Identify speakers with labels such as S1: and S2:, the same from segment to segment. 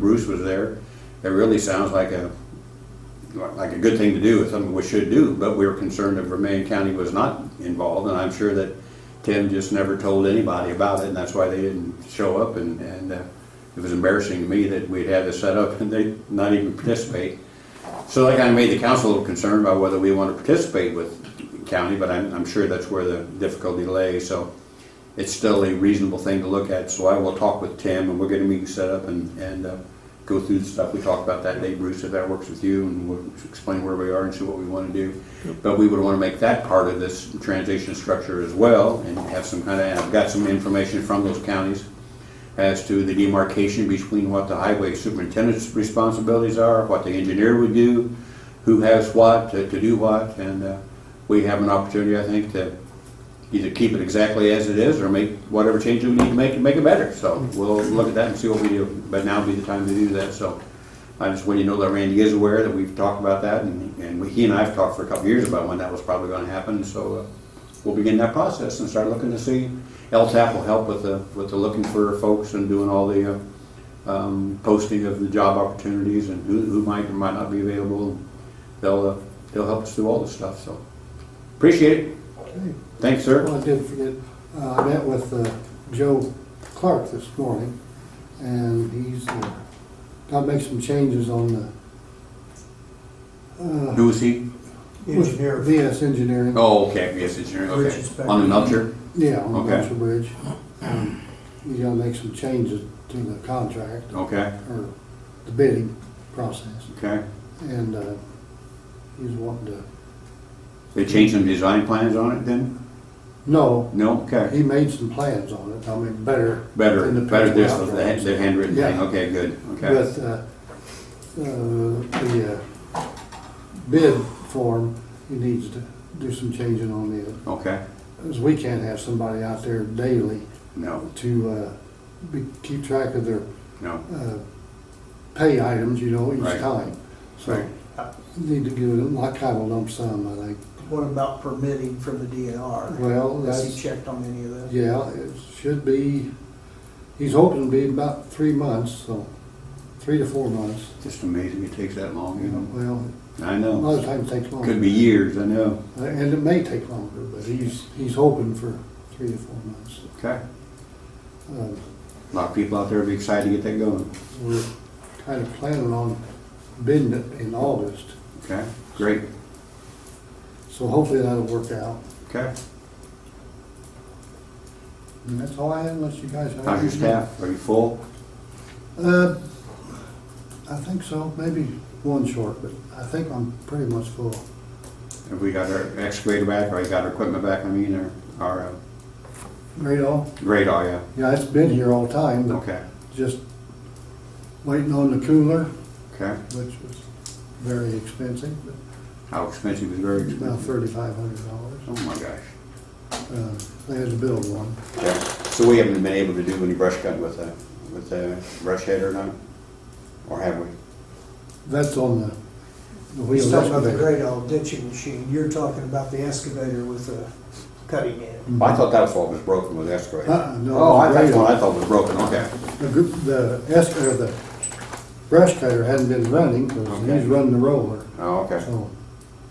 S1: Bruce was there. It really sounds like a, like a good thing to do, it's something we should do, but we were concerned that Vermillion County was not involved, and I'm sure that Tim just never told anybody about it, and that's why they didn't show up, and, and uh, it was embarrassing to me that we'd had this set up and they not even participate. So that kind of made the council a little concerned about whether we want to participate with county, but I'm, I'm sure that's where the difficulty lay, so it's still a reasonable thing to look at, so I will talk with Tim, and we'll get a meeting set up and, and uh, go through the stuff we talked about that day, Bruce, if that works with you, and we'll explain where we are and see what we want to do. But we would want to make that part of this transition structure as well, and have some kind of, and I've got some information from those counties as to the demarcation between what the highway superintendent's responsibilities are, what the engineer would do, who has what, to to do what, and uh, we have an opportunity, I think, to either keep it exactly as it is or make whatever changes we need to make to make it better. So we'll look at that and see what we do, but now would be the time to do that, so. I just want you to know that Randy is aware that we've talked about that and, and he and I have talked for a couple of years about when that was probably gonna happen, so uh, we'll begin that process and start looking to see. LTAP will help with the, with the looking for folks and doing all the, uh, um, posting of the job opportunities and who, who might or might not be available. They'll, uh, they'll help us do all this stuff, so. Appreciate it.
S2: Okay.
S1: Thanks, sir.
S2: Well, I did forget, uh, I met with uh, Joe Clark this morning, and he's uh, got to make some changes on the. uh,
S1: Who is he?
S2: with
S3: engineer.
S2: VS Engineering,
S1: Oh, okay, yes, it's your, okay.
S3: Richard's back.
S1: On the Nupture?
S2: yeah, on
S1: Okay.
S2: Marshall Bridge. Um, He's got to make some changes to the contract,
S1: Okay,
S2: or the bidding process,
S1: okay.
S2: and uh, he's wanting to,
S1: They changed some design plans on it then?
S2: no,
S1: No, okay.
S2: he made some plans on it, I mean, better.
S1: Better,
S2: than the
S1: better this,
S2: picture
S1: the
S2: out there.
S1: hand- the handwritten thing,
S2: Yeah.
S1: okay, good, okay.
S2: But, uh, uh, the uh, bid form, he needs to do some changing on it.
S1: Okay,
S2: Because we can't have somebody out there daily
S1: no,
S2: to, uh, be, keep track of their,
S1: no,
S2: uh, pay items, you know,
S1: Right.
S2: each time. So,
S1: Right.
S2: need to give it, like, kind of a lump sum, I think.
S3: What about permitting from the DNR?
S2: Well,
S3: Has he
S2: that's,
S3: checked on any of that?
S2: yeah, it should be, he's hoping to be about three months, so, three to four months.
S1: just amazing it takes that long,
S2: You know,
S1: you
S2: well,
S1: know? I
S2: a lot of
S1: know,
S2: times it takes longer.
S1: could be years, I know,
S2: Uh, And it may take longer, but he's, he's hoping for three to four months.
S1: okay.
S2: Um,
S1: A lot of people out there would be excited to get that going,
S2: We're kind of planning on bidding it in August,
S1: okay? Great,
S2: so hopefully that'll work out.
S1: okay.
S2: And that's all I have unless you guys have.
S1: How's your
S2: anything.
S1: staff? Are you full?
S2: Uh, I think so, maybe one short, but I think I'm pretty much full.
S1: Have we got our excavator back, or you got our equipment back, I mean, or our uh,
S2: Great all?
S1: grade, oh yeah?
S2: Yeah, it's been here all time, but
S1: Okay,
S2: just waiting on the cooler,
S1: okay.
S2: which was very expensive, but
S1: How expensive is very
S2: about
S1: expensive?
S2: thirty-five hundred dollars.
S1: Oh my gosh.
S2: Uh, They had to build one.
S1: Yeah, so we haven't been able to do any brush cut with a, with a brush head or not? Or have we?
S2: That's on the, the
S3: He's
S2: wheel
S3: talking about the
S2: excavator.
S3: great old ditching machine. You're talking about the excavator with the cutting end.
S1: I thought that was what was broken with excavator.
S2: Uh-uh, no,
S1: Oh, I,
S2: the
S1: that's
S2: grader.
S1: what I thought was broken, okay.
S2: The, gr- the es- or the brush cutter hadn't been running, because
S1: Okay.
S2: he's running the roller,
S1: Oh, okay,
S2: so.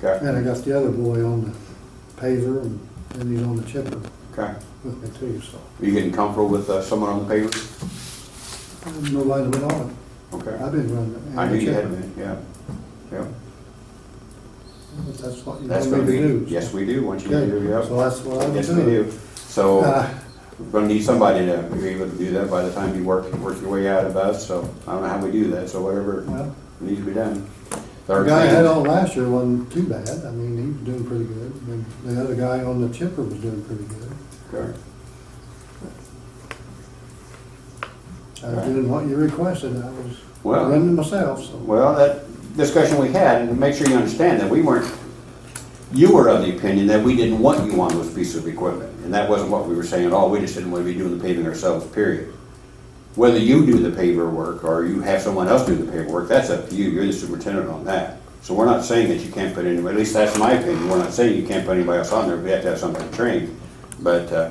S1: okay,
S2: And I got the other boy on the paver, and then he's on the chipper
S1: okay.
S2: with me too, so.
S1: Are you getting comfortable with uh, someone on the paver?
S2: Nobody went on it.
S1: Okay.
S2: I've been running it. and
S1: I knew
S2: the
S1: you had
S2: chipper.
S1: been, yeah. Yeah,
S2: But That's what you
S1: that's
S2: want me
S1: gonna
S2: to do.
S1: be, yes, we do, once you
S2: Okay,
S1: do, yeah.
S2: So that's what I'm doing.
S1: Yes, we do. So,
S2: Uh,
S1: we're gonna need somebody to be able to do that by the time you work, work your way out of us, so I don't know how we do that, so whatever
S2: Well,
S1: needs to be done.
S2: the
S1: Third
S2: guy I
S1: thing-
S2: had on last year wasn't too bad, I mean, he was doing pretty good, and the other guy on the chipper was doing pretty good.
S1: Okay.
S2: I was doing what you requested, I was
S1: Well-
S2: running myself, so.
S1: Well, that discussion we had, and make sure you understand that we weren't, you were of the opinion that we didn't want you on this piece of equipment. And that wasn't what we were saying at all. We just didn't want to be doing the paving ourselves, period. Whether you do the paver work or you have someone else do the paver work, that's up to you. You're the superintendent on that. So we're not saying that you can't put anybody, at least that's my opinion. We're not saying you can't put anybody else on there. We have to have somebody trained. But uh,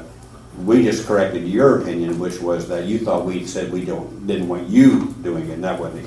S1: we just corrected your opinion, which was that you thought we said we don't, didn't want you doing it, and that wasn't the